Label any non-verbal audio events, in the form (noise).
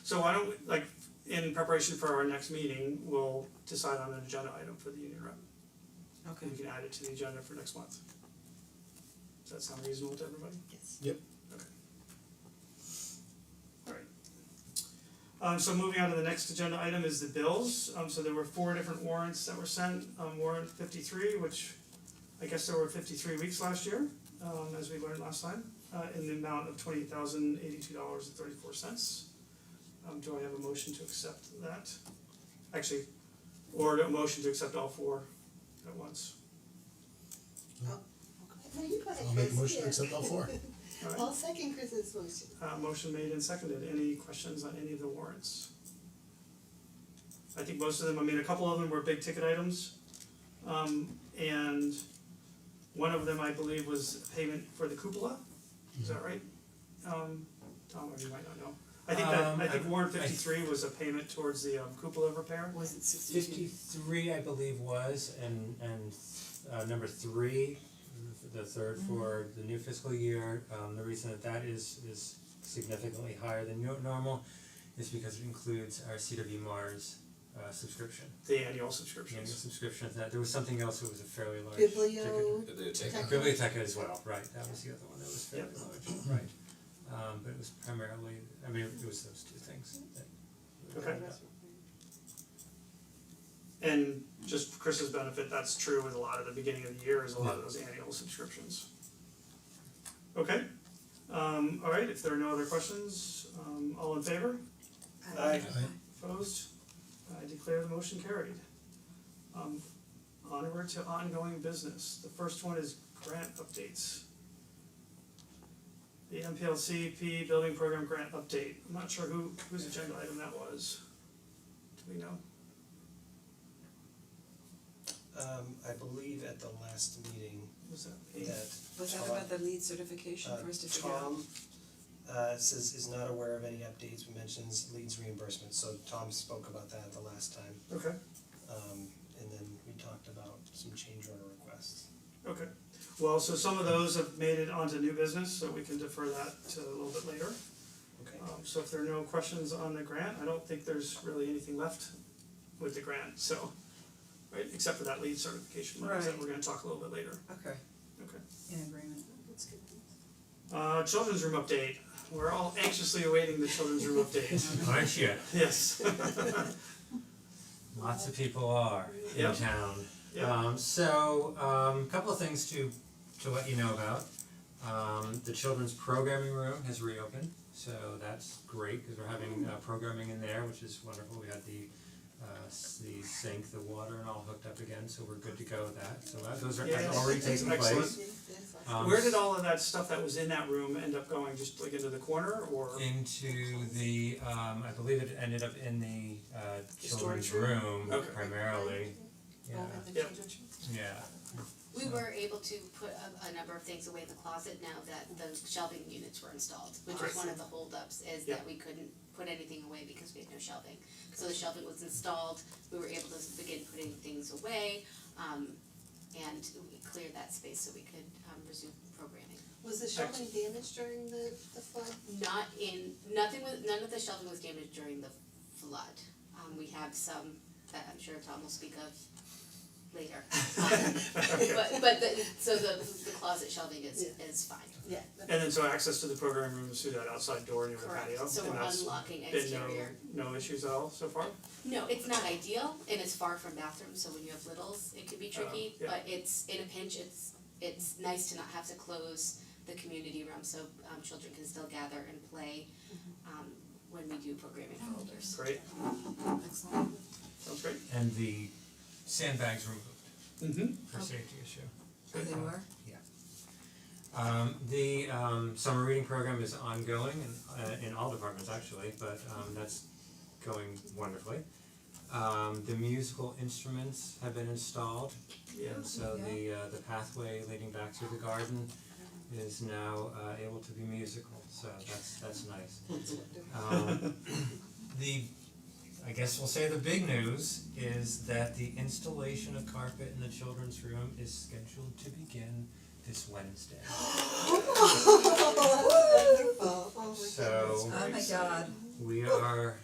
So why don't we, like, in preparation for our next meeting, we'll decide on an agenda item for the union rep, Okay, and we can add it to the agenda for next month. Does that sound reasonable to everybody? yes. Alright. Um so moving on to the next agenda item is the bills, um so there were four different warrants that were sent, um warrant fifty three, which I guess there were fifty three weeks last year, um as we learned last time, uh in the amount of twenty thousand eighty two dollars and thirty four cents. Um do I have a motion to accept that? Actually, or a motion to accept all four at once, No, you got it, I'll make a Chris. motion to Yeah. accept all (laughs) four. alright? I'll second Chris's motion. Uh motion made and seconded, any questions on any of the warrants? I think most of them, I mean, a couple of them were big ticket items. Um and one of them, I believe, was payment for the cupola, is Mm-hmm. that right? Um Tom, or you might not know, I think that, Um, I think I- warrant I- fifty three was a payment towards the um cupola repair. Was it sixty-two? Fifty-three, I believe, was, and and uh number three, the third for the new fiscal year, um the reason that that is is significantly higher than no- normal is because it includes our CW Mars uh subscription, The annual annual subscriptions, subscription, that there was something else that was a fairly large ticket. Biblio, Biblioteca as well, right, that was the other one that was fairly large, right. Um but it was primarily, I mean, it was those two things that Okay. and just for Chris's benefit, that's true with a lot of the beginning of the year is a lot of those annual subscriptions. Okay, um alright, if there are no other questions, um all in favor, Uh, Aye. Aye. opposed, I declare the motion carried. Um onward to ongoing business, the first one is grant updates. The MPLCP building program grant update, I'm not sure who whose agenda item that was. Do we know? Um I believe at the last meeting Was that me? that Was that about the lead certification uh for us to figure out? Tom uh says is not aware of any updates, mentions leads reimbursement, so Tom spoke about that at the last time. Okay. Um and then we talked about some change order requests. Okay, well, so some of those have made it onto new business, so we can defer that to a little bit later. Okay. Um so if there are no questions on the grant, I don't think there's really anything left with the grant, so right, except for that lead certification, like I said, Right. we're gonna talk a little bit later, Okay, okay. in agreement. That's good. Uh children's room update, we're all anxiously awaiting the children's room update, (laughs) Aren't you? yes. (laughs) Lots of people are in Yep. town. Yep. Um so um couple of things to to let you know about. Um the children's programming room has reopened, so that's great because we're having uh programming in there, which is wonderful. We had the uh s- the sink, the water and all hooked up again, so we're good to go with that. So that those are Yes. already taking place. Excellent. Yes, I- Um, Where did all of that stuff that was in that room end up going, just like into the corner or? into the um I believe it ended up in the uh The children's storage room Okay. primarily. Oh, Yeah, and the Yep. children's room? yeah. We were able to put a, a number of things away in the closet now that the shelving units were installed, which Great. was one of the holdups, is Yeah. that we couldn't put anything away because we had no shelving. So the shelving was installed, we were able to begin putting things away, um, and we cleared that space so we could, um, resume programming. Was the shelving damaged during the the flood? Not in, nothing was, none of the shelving was damaged during the flood. Um, we have some that I'm sure Tom will speak of later. (laughs) Um, But but the, so the the closet shelving is Yeah. is fine. Yeah. And then so access to the programming room is through that outside door near the patio, Correct, so and we're that's unlocking been exterior. no no issues at all so far? No, it's not ideal and it's far from bathrooms, so when you have littles, it can be tricky, Oh, yeah. but it's in a pinch, it's it's nice to not have to close the community room, so um children can still gather and play um when we do programming for elders. Oh, Great, Excellent. sounds great. and the sandbags removed Mm-hmm. for safety issue. Oh, they (laughs) were? Um the um summer reading program is ongoing in uh in all departments actually, but um that's going wonderfully. Um the musical instruments have been installed Yeah, and so the uh the pathway leading back through the garden is now uh able to be musical, so that's that's nice. Um (coughs) the I guess we'll say the big news is that the installation of carpet in the children's room is scheduled to begin this (gasps) Wednesday. Oh, that's wonderful. Oh my goodness. So Oh my god. we are